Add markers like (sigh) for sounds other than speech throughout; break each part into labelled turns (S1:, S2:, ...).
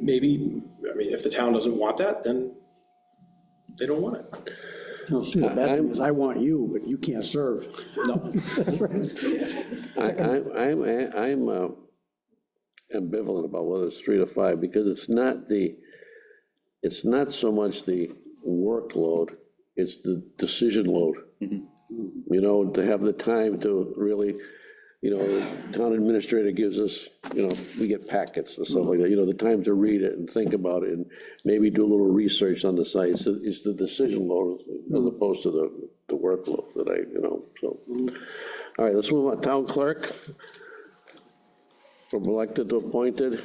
S1: maybe, I mean, if the town doesn't want that, then they don't want it.
S2: No, see, the bad thing is I want you, but you can't serve.
S3: I, I, I'm, I'm uh, ambivalent about whether it's three to five, because it's not the, it's not so much the workload, it's the decision load. You know, to have the time to really, you know, the town administrator gives us, you know, we get packets and stuff like that, you know, the time to read it and think about it, and maybe do a little research on the site, it's, the- it's the decision load as opposed to the, the workload that I, you know, so. All right, let's move on. Town clerk. From elected to appointed.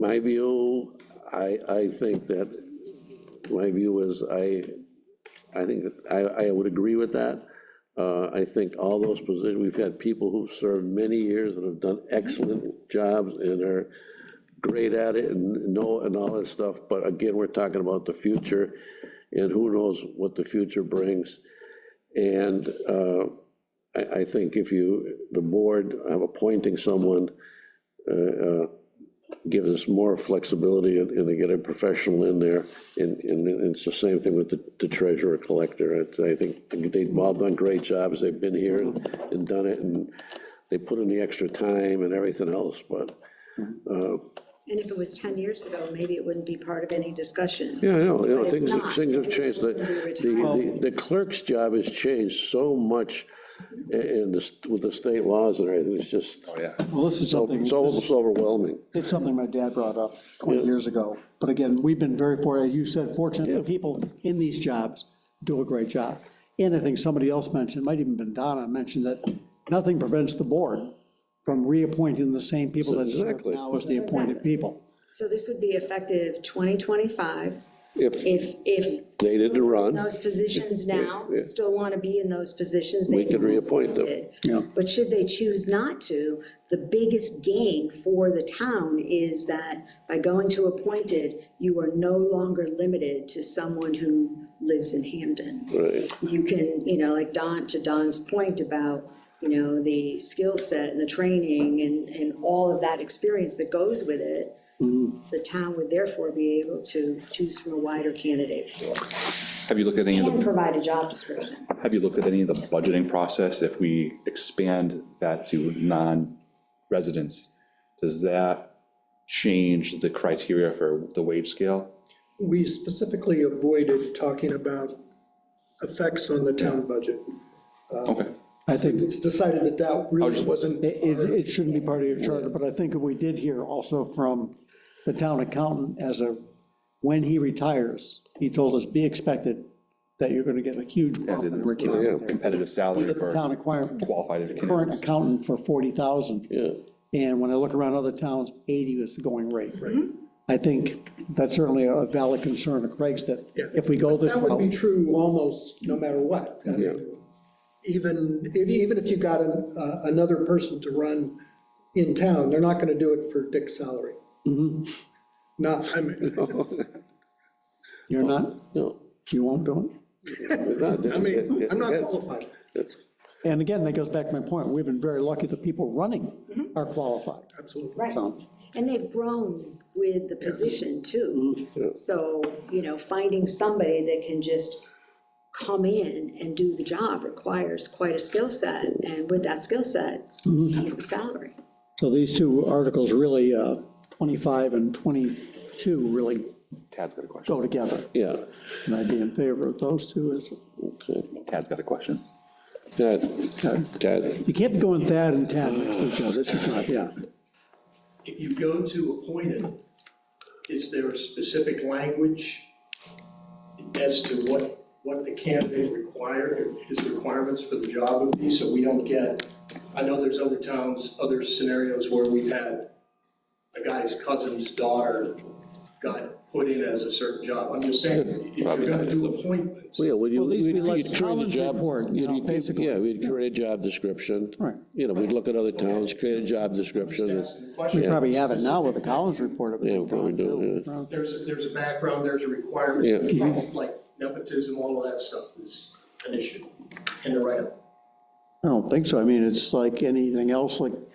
S3: My view, I, I think that, my view is, I, I think, that I, I would agree with that. Uh, I think all those positions, we've had people who've served many years and have done excellent jobs and are great at it and know and all that stuff, but again, we're talking about the future and who knows what the future brings. And uh, I, I think if you, the board, of appointing someone, uh, uh, gives us more flexibility and, and to get a professional in there. And, and it's the same thing with the the treasurer collector. It's- I think they've all done great jobs. They've been here and and done it and they put in the extra time and everything else, but,
S4: And if it was 10 years ago, maybe it wouldn't be part of any discussion.
S3: yeah, I know, you know,
S4: But
S3: things,
S4: it's not.
S3: things have changed. The,
S4: Everyone's
S3: the-
S4: gonna be
S3: the the clerk's job has changed so much i- in this, with the state laws and everything. It's just,
S2: Well, this is something,
S3: it's almost overwhelming.
S2: it's something my dad brought up 20 years ago. But again, we've been very, for- as you said, fortunate that people in these jobs do a great job. And I think somebody else mentioned, might even been Donna, mentioned that nothing prevents the board from reappointing the same people that serve
S3: Exactly.
S2: now as the appointed people.
S4: So this would be effective 2025
S3: If
S4: if, if.
S3: They didn't
S4: people
S3: run.
S4: in Those positions now
S3: yeah.
S4: still want to be in those positions.
S3: We
S4: they
S3: could
S4: can be
S3: reappoint them.
S4: appointed.
S2: Yeah.
S4: But should they choose not to, the biggest gain for the town is that by going to appointed, you are no longer limited to someone who lives in Hamden.
S3: Right.
S4: you can, you know, like Don, to Don's point about, you know, the skill set and the training and, and all of that experience that goes with it, the town would therefore be able to choose from a wider candidate
S5: Have you looked at any of
S4: and
S5: the,
S4: provide a job description.
S5: have you looked at any of the budgeting process? If we expand that to non-residents, does that change the criteria for the wage scale?
S6: we specifically avoided talking about effects on the town budget.
S5: Okay.
S2: I think
S6: It's decided that that really wasn't,
S2: It, it- it shouldn't be part of your charter, but I think we did hear also from the town accountant as a, when he retires, he told us, be expected that you're gonna get a huge bump in retirement. there."
S5: Competitive salary
S2: The town
S5: for
S2: acquire,
S5: qualified
S2: current
S5: candidates?
S2: accountant for forty thousand.
S3: Yeah.
S2: And when I look around other towns, eighty was the going rate.
S6: Mm-hmm.
S2: I think that's certainly a valid concern of Craig's that
S6: Yeah.
S2: if we go this
S6: that would be
S2: route,
S6: true almost no matter what. I mean, Even, if- even if you got an- uh, another person to run in town, they're not going to do it for Dick's salary. Not, I mean, (laughs)
S2: you're not,
S3: No.
S2: you won't do it.
S6: I mean, I'm not qualified.
S2: And again, that goes back to my point, we've been very lucky the people running
S6: Mm-hmm.
S2: are qualified.
S6: Absolutely.
S4: Right.
S2: So-
S4: And they've grown with the position too. So, you know, finding somebody that can just come in and do the job requires quite a skill set. And with that skill set, comes the salary.
S2: So these two articles really, uh, 25 and 22 really
S5: Tad's got a question.
S2: go together.
S3: Yeah,
S2: And I'd be in favor of those two. Is
S5: Tad's got a question.
S3: that, that,
S2: You kept going Thad and Tad next to each other. This is not, yeah.
S7: If you go to appointed, is there a specific language as to what, what the candidate required, his requirements for the job would be, so we don't get, I know there's other towns, other scenarios where we've had a guy's cousin's daughter got put in as a certain job. I'm just saying, if you're gonna do appointments,
S3: well, yeah, well, you,
S2: Well, at least we
S3: we'd
S2: like
S3: you'd create a
S2: Colin's
S3: job.
S2: report, you
S3: you'd-
S2: know,
S3: you'd-
S2: basically.
S3: Yeah, we'd create a job description.
S2: Right.
S3: You know, we'd look at other towns, create a job description. and-
S7: asking the question.
S2: We probably have it now with the Collins report.
S3: Yeah, we probably do,
S2: yeah.
S7: There's, a- there's a background, there's a requirement,
S3: Yeah.
S7: people, like nepotism, all of that stuff is an issue in the write-up.
S2: I don't think so. I mean, it's like anything else, like